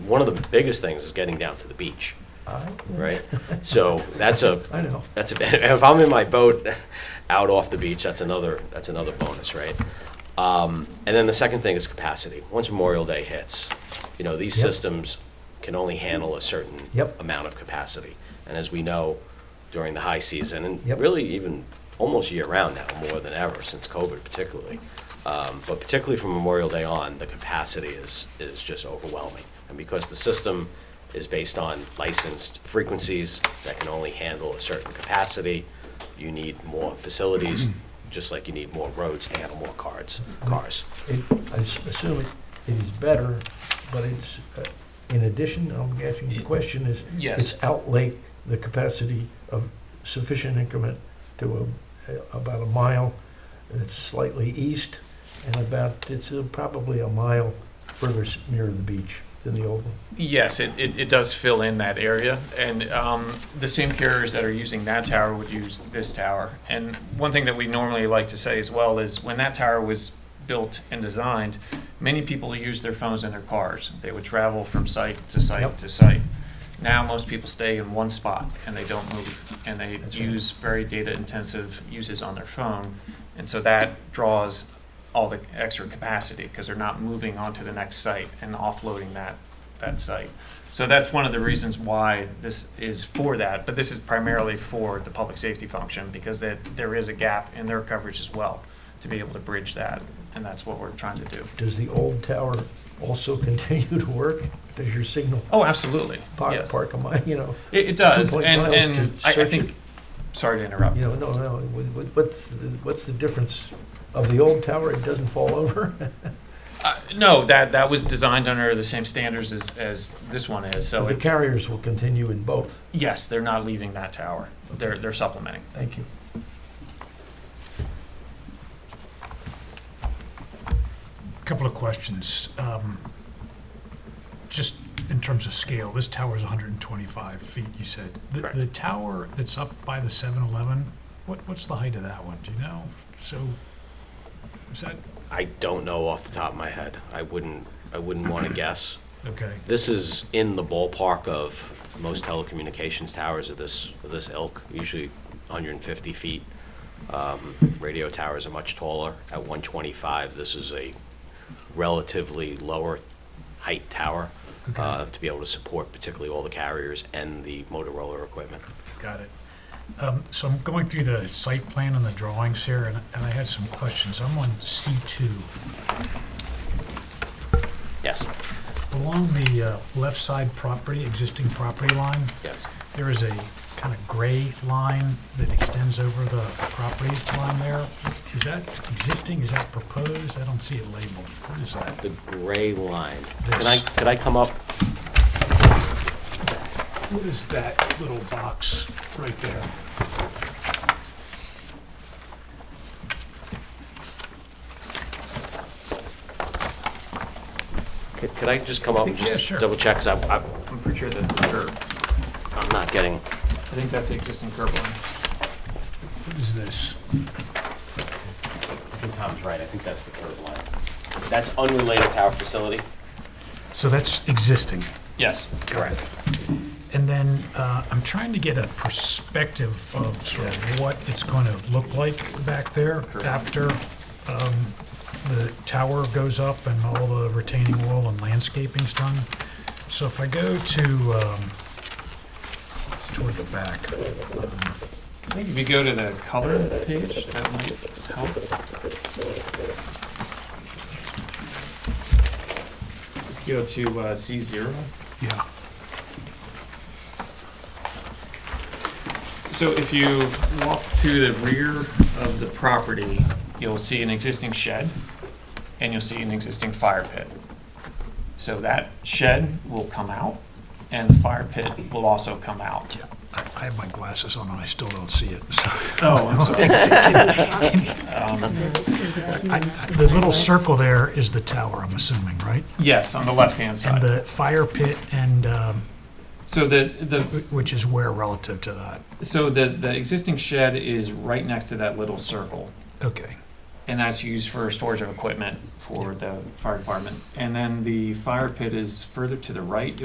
one of the biggest things is getting down to the beach, I- right? So that's a, I know. that's a, if I'm in my boat out off the beach, that's another, that's another bonus, right? Um, and then the second thing is capacity. Once Memorial Day hits, you know, these Yep. systems can only handle a certain Yep. amount of capacity. And as we know, during the high season, and Yep. really even almost year-round now, more than ever, since COVID particularly, um, but particularly from Memorial Day on, the capacity is, is just overwhelming. And because the system is based on licensed frequencies that can only handle a certain capacity, you need more facilities, just like you need more roads to handle more cards, cars. It, I s- assume it, it is better, but it's, uh, in addition, I'm asking the question is, Yes, it's outlay the capacity of sufficient increment to a, uh, about a mile, it's slightly east, and about, it's uh, probably a mile further s- nearer the beach than the old one. yes, it, it, it does fill in that area, and, um, the same carriers that are using that tower would use this tower. And one thing that we normally like to say as well is, when that tower was built and designed, many people used their phones in their cars. They would travel from site to site Yep. to site. Now, most people stay in one spot and they don't move, and they That's right. use very data-intensive uses on their phone. And so that draws all the extra capacity because they're not moving on to the next site and offloading that, that site. So that's one of the reasons why this is for that, but this is primarily for the public safety function because that, there is a gap in their coverage as well to be able to bridge that, and that's what we're trying to do. Does the old tower also continue to work? Does your signal Oh, absolutely. park, Yes. park a mile, you know? It, it does, 2.0 and, is to and I, I search think, it. sorry to interrupt. You know, no, no, what- what- what's, the- what's the difference of the old tower, it doesn't fall over? Uh, no, that, that was designed under the same standards as, as this one is, so The it, carriers will continue in both. yes, they're not leaving that tower. They're, they're supplementing. Thank you. Couple of questions. Um, Just in terms of scale, this tower is 125 feet, you said. The- Correct. The tower that's up by the 7-Eleven, what, what's the height of that one, do you know? So, is that, I don't know off the top of my head. I wouldn't, I wouldn't want to guess. okay, This is in the ballpark of most telecommunications towers of this, of this ilk, usually 150 feet. Um, Radio towers are much taller, at 125. This is a relatively lower height tower Okay. uh, to be able to support particularly all the carriers and the Motorola equipment. got it. Um, So I'm going through the site plan and the drawings here, and and I had some questions. I'm on C2. Yes, Along the uh, left side property, existing property line, yes. There is a kind of gray line that extends over the property line there. Is that existing, is that proposed? I don't see it labeled. What is that? The gray line. Can I, This. could I come up? What is that little box right there? Could could I just come up and Yeah, just sure. double check? 'Cause I- I- I'm pretty sure that's the curb. I'm not getting, I think that's the existing curb line. What is this? I think Tom's right, I think that's the curb line. That's unrelated to our facility? So that's existing. Yes. Correct. And then uh, I'm trying to get a perspective of sort of what it's going to look like back there after um, the tower goes up and all the retaining wall and landscaping's done. So if I go to, um, it's toward the back. Um, I think if you go to the color page, that might help. Go to uh, C0. Yeah, So if you walk to the rear of the property, you'll see an existing shed and you'll see an existing fire pit. So that shed will come out and the fire pit will also come out. yeah. I I have my glasses on and I still don't see it. so- Oh, I'm sorry. Um, I- I- The little circle there is the tower, I'm assuming, right? Yes, on the left-hand And side. the fire pit and, um, So the, the wh- which is where relative to that? So the, the existing shed is right next to that little circle, Okay. and that's used for storage of equipment for the fire department. And then the fire pit is further to the right,